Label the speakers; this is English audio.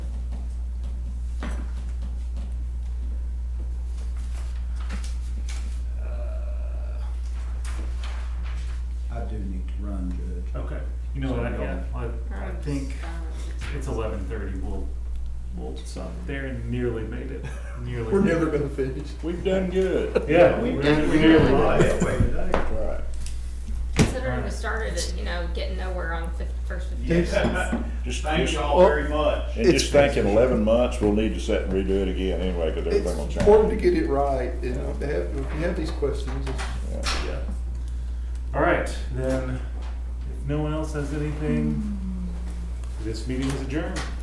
Speaker 1: No,
Speaker 2: So
Speaker 1: I,
Speaker 2: we
Speaker 1: Uh, yeah,
Speaker 2: don't-
Speaker 1: I, I think it's eleven thirty, we'll, we'll stop there and nearly made it, nearly.
Speaker 3: We're
Speaker 1: made
Speaker 3: never
Speaker 1: it.
Speaker 3: gonna finish.
Speaker 2: We've done good.
Speaker 1: Yeah,
Speaker 2: We
Speaker 1: we're
Speaker 2: done
Speaker 1: nearly
Speaker 2: good.
Speaker 1: live.
Speaker 2: Right.
Speaker 4: Considering we started at, you know, getting nowhere on the fif- first fifty.
Speaker 3: Yes.
Speaker 2: Just,
Speaker 5: Thank
Speaker 2: just,
Speaker 5: y'all very much.
Speaker 2: and just think in eleven months, we'll need to sit and redo it again anyway, cause
Speaker 3: It's
Speaker 2: everything will
Speaker 3: important to
Speaker 2: change.
Speaker 3: get it right, and if they have, if you have these questions, it's-
Speaker 2: Yeah.
Speaker 1: All right, then, if no one else has anything, this meeting is adjourned.